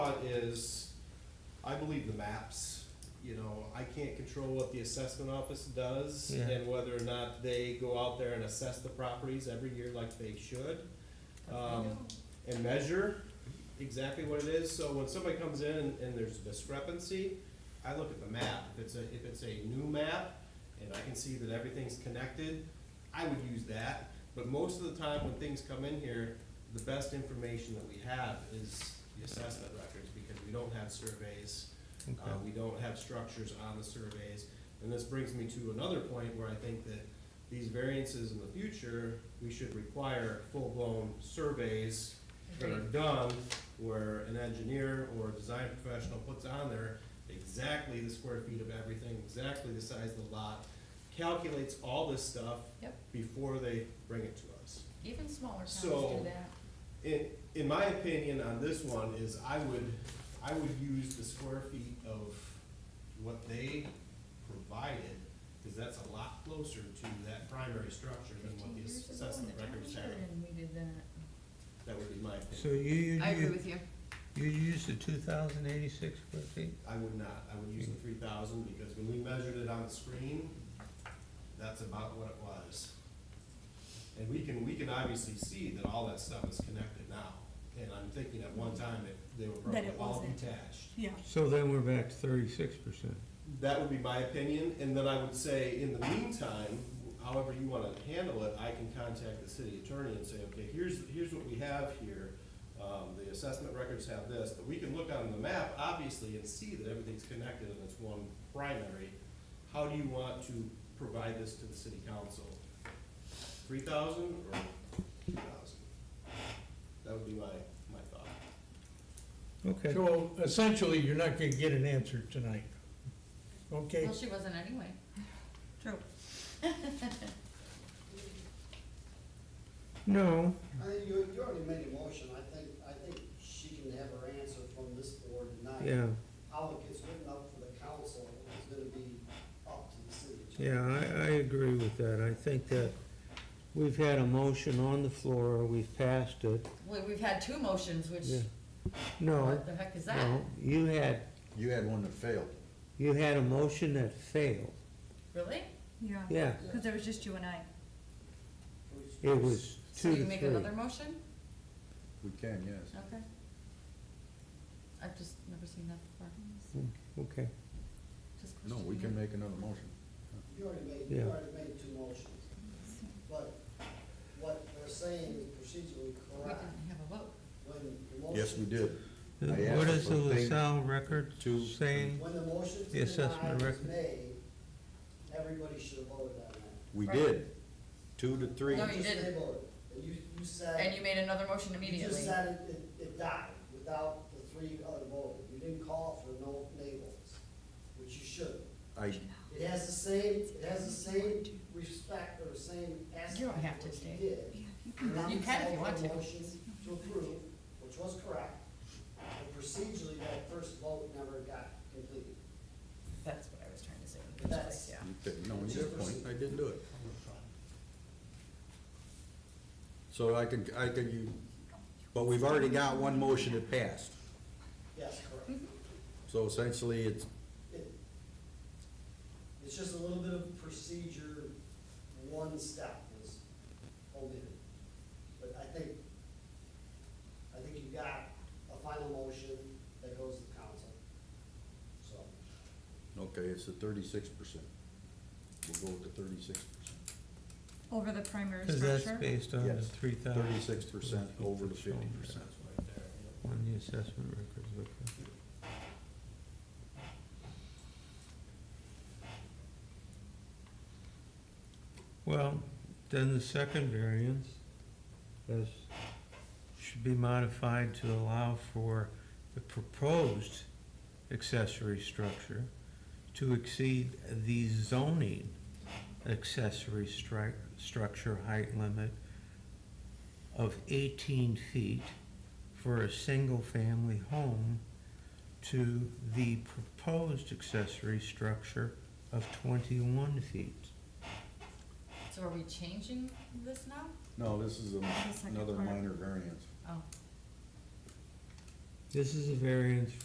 thought is, I believe the maps, you know, I can't control what the assessment office does Yeah. and whether or not they go out there and assess the properties every year like they should. Um, and measure exactly what it is, so when somebody comes in and there's discrepancy, I look at the map, if it's a, if it's a new map, and I can see that everything's connected, I would use that, but most of the time when things come in here, the best information that we have is the assessment records, because we don't have surveys, uh, Okay. we don't have structures on the surveys. And this brings me to another point where I think that these variances in the future, we should require full-blown surveys that are done, where an engineer or a design professional puts on there exactly the square feet of everything, exactly the size of the lot, calculates all this stuff Yep. before they bring it to us. Even smaller towns So- do that. In, in my opinion on this one is I would, I would use the square feet of what they provided, cause that's a lot closer to that primary structure than what Fifteen the years ago in assessment the records township, have. and we did that. That would be my So opinion. you, I agree you, with you. you used the two thousand eighty-six square feet? I would not, I would use the three thousand, because when we measured it on the screen, that's about what it was. And we can, we can obviously see that all that stuff is connected now, and I'm thinking at one time it, they were That probably it all wasn't. detached. Yeah, So then we're back to thirty-six percent. That would be my opinion, and then I would say, in the meantime, however you wanna handle it, I can contact the city attorney and say, okay, here's, here's what we have here. Um, the assessment records have this, but we can look on the map, obviously, and see that everything's connected and it's one primary. How do you want to provide this to the city council? Three thousand or two thousand? That would be my, my thought. Okay, So essentially, you're not gonna get an answer tonight, okay? Well, she wasn't anyway. true. no, I mean, you, you already made a motion, I think, I think she can have her answer from this board tonight. yeah, How it gets written up for the council is gonna be up to the city attorney. yeah, I, I agree with that. I think that we've had a motion on the floor, we've passed it. We, we've had two motions, which, Yeah. No, what the heck is that? no, you had, You had one that failed. you had a motion that failed, Really? Yeah. yeah. Because there was just you and I. It was So two you to make three. another motion? We can, yes. Okay. I've just never seen that before. Okay, Just No, we questioning can it. make another motion. You already made, you Yeah. already made two motions, but what they're saying is procedurally We correct. didn't have a vote. When the motion. Yes, we did. Uh, I asked what is for the thing- LaSalle record two- saying? When the motion The to deny assessment was record. made, everybody should have voted on that. We Right. did. Two to three. No, you Just they didn't. voted. And you, you Uh, said. And you made another motion You immediately. just said it, it, it died without the three other voters. You didn't call for no nay votes, which you should. I, It has the same, it has the same respect or the same aspect. You don't have to which you stay. did. You can if you want to. Now, you called for a motion to approve, which was correct, and procedurally, that first vote never got completed. That's what I was trying to say. But that's- Yeah. you did- no, you did point, I didn't do it. So I could, I could, you, but we've already got one motion that passed. Yes, Mm-hmm. correct. So essentially, it's, It- It's just a little bit of procedure, one step was omitted. But I think, I think you've got a final motion that goes to the council. So, okay, it's the thirty-six percent. We'll go with the thirty-six percent. Over the primary Cause that's structure. based on the Yes. three thousand. Thirty-six percent over the fifty percent. Right there, you know. On the assessment records, okay. Well, then the second variance is, should be modified to allow for the proposed accessory structure to exceed the zoning accessory stri- structure height limit of eighteen feet for a single-family home to the proposed accessory structure of twenty-one feet. So are we changing this now? No, this is a- The second another part. minor variance. Oh, This is a variance